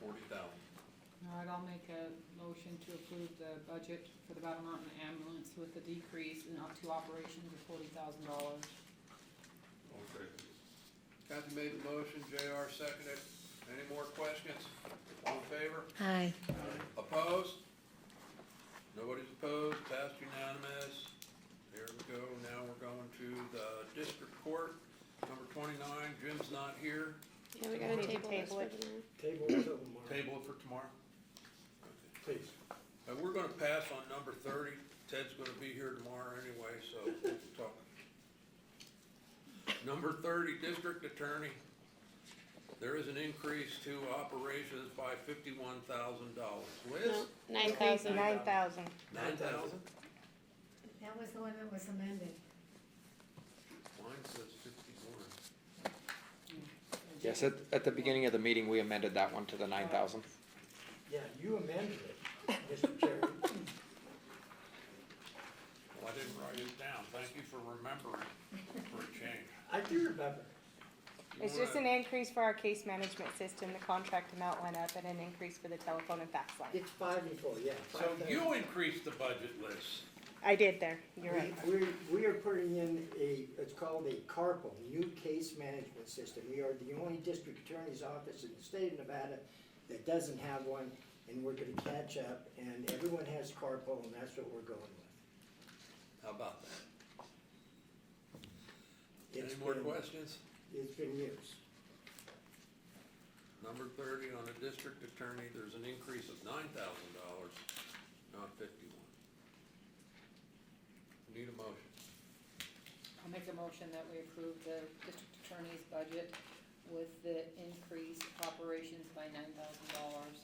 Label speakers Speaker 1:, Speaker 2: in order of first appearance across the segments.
Speaker 1: forty thousand.
Speaker 2: All right, I'll make a motion to approve the budget for the Battle Mountain ambulance with the decrease in up to operations of forty thousand dollars.
Speaker 1: Okay.
Speaker 3: Kathy made the motion, JR seconded. Any more questions? All in favor?
Speaker 4: Aye.
Speaker 3: Opposed? Nobody's opposed, passed unanimous. Here we go, now we're going to the district court, number twenty-nine, Jim's not here,
Speaker 4: Yeah, we gotta
Speaker 5: Need to
Speaker 4: table this
Speaker 5: table
Speaker 4: for
Speaker 5: it.
Speaker 4: tomorrow.
Speaker 6: Table until tomorrow,
Speaker 3: table it for tomorrow.
Speaker 6: please.
Speaker 3: Uh, we're gonna pass on number thirty, Ted's gonna be here tomorrow anyway, so we'll talk. Number thirty, district attorney. There is an increase to operations by fifty-one thousand dollars.
Speaker 4: No,
Speaker 3: Liz,
Speaker 4: nine thousand.
Speaker 5: Nine thousand.
Speaker 3: nine thousand?
Speaker 7: That was the one that was amended.
Speaker 3: Mine says fifty-one.
Speaker 8: Yes, at, at the beginning of the meeting, we amended that one to the nine thousand.
Speaker 6: Yeah, you amended it, Mr. Chairman.
Speaker 3: Well, I didn't write it down. Thank you for remembering for a change.
Speaker 6: I do remember.
Speaker 3: You
Speaker 5: It's just an
Speaker 3: wanna-
Speaker 5: increase for our case management system, the contract amount went up, and an increase for the telephone and fax line.
Speaker 6: It's five and four, yeah.
Speaker 3: So
Speaker 6: five thousand.
Speaker 3: you increased the budget list.
Speaker 5: I did there, you're right.
Speaker 6: We, we're- we are putting in a, it's called a CARPO, new case management system. We are the only district attorney's office in the state of Nevada that doesn't have one, and we're gonna catch up, and everyone has CARPO, and that's what we're going with.
Speaker 3: How about that? Any
Speaker 6: It's
Speaker 3: more
Speaker 6: been-
Speaker 3: questions?
Speaker 6: It's been years.
Speaker 3: Number thirty, on a district attorney, there's an increase of nine thousand dollars, not fifty-one. Need a motion.
Speaker 2: I'll make a motion that we approve the district attorney's budget with the increase of operations by nine thousand dollars.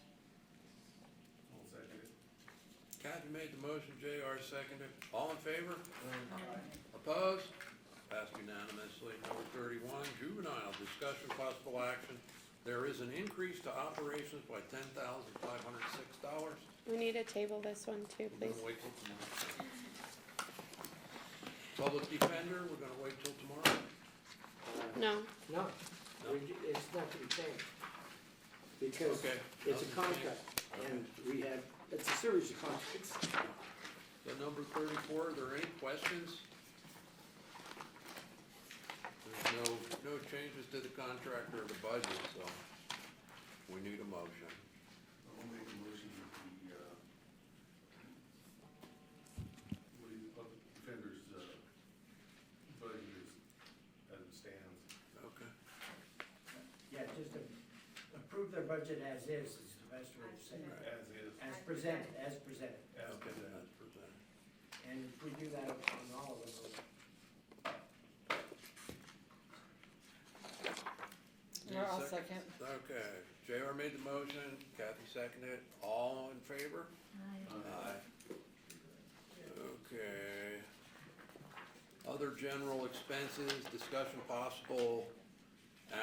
Speaker 3: Kathy made the motion, JR seconded. All in favor? Opposed? Passed unanimously. Number thirty-one, juvenile, discussion possible action. There is an increase to operations by ten thousand five hundred six dollars.
Speaker 4: We need to table this one too,
Speaker 3: We're
Speaker 4: please.
Speaker 3: gonna wait till tomorrow. Public defender, we're gonna wait till tomorrow.
Speaker 4: No,
Speaker 6: No, we, ju- it's not gonna change. Because
Speaker 3: Okay.
Speaker 6: it's a
Speaker 3: Nothing's changed.
Speaker 6: contract, and we have, it's a series of contracts.
Speaker 3: The number thirty-four, are there any questions? There's no, no changes to the contract or the budget, so we need a motion.
Speaker 1: I'll make a motion that the, uh, what do you, public defender's, uh, budget is, as it stands.
Speaker 3: Okay.
Speaker 9: Yeah, just a- approve their budget as is, is the best way to say it.
Speaker 1: As is,
Speaker 9: As presented, as presented.
Speaker 1: as
Speaker 3: Okay,
Speaker 1: presented.
Speaker 3: that's presented.
Speaker 9: And if we do that on all of them,
Speaker 2: Yeah, I'll
Speaker 3: Any
Speaker 2: second.
Speaker 3: Okay, JR made the motion, Kathy seconded, all in favor? Aye. Okay. Other general expenses, discussion possible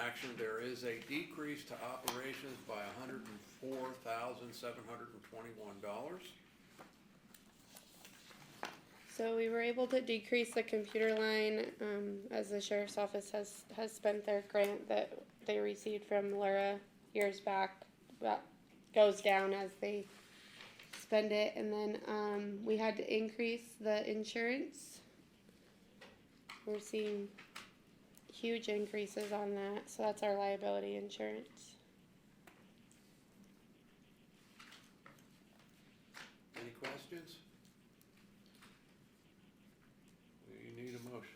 Speaker 3: action, there is a decrease to operations by hundred and four thousand, seven hundred and twenty-one dollars.
Speaker 4: so we were able to decrease the computer line, um, as the sheriff's office has, has spent their grant that they received from Laura years back, but goes down as they spend it, and then, um, we had to increase the insurance. We're seeing huge increases on that, so that's our liability insurance.
Speaker 3: Any questions? You need a motion.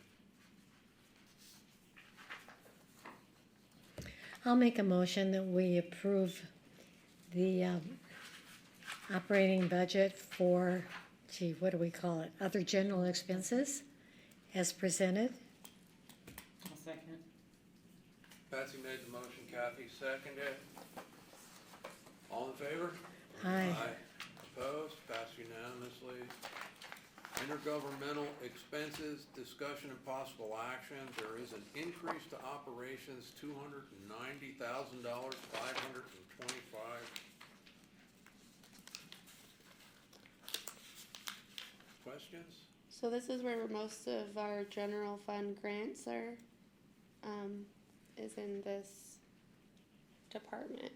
Speaker 10: I'll make a motion that we approve the um, operating budget for, gee, what do we call it? Other general expenses as presented.
Speaker 2: I'll second.
Speaker 3: Patsy made the motion, Kathy seconded. All in favor?
Speaker 10: Aye.
Speaker 3: Opposed, passed unanimously. Intergovernmental expenses, discussion and possible action, there is an increase to operations, two hundred and ninety thousand dollars, five hundred and twenty-five. Questions?
Speaker 4: So this is where most of our general fund grants are, um, is in this department.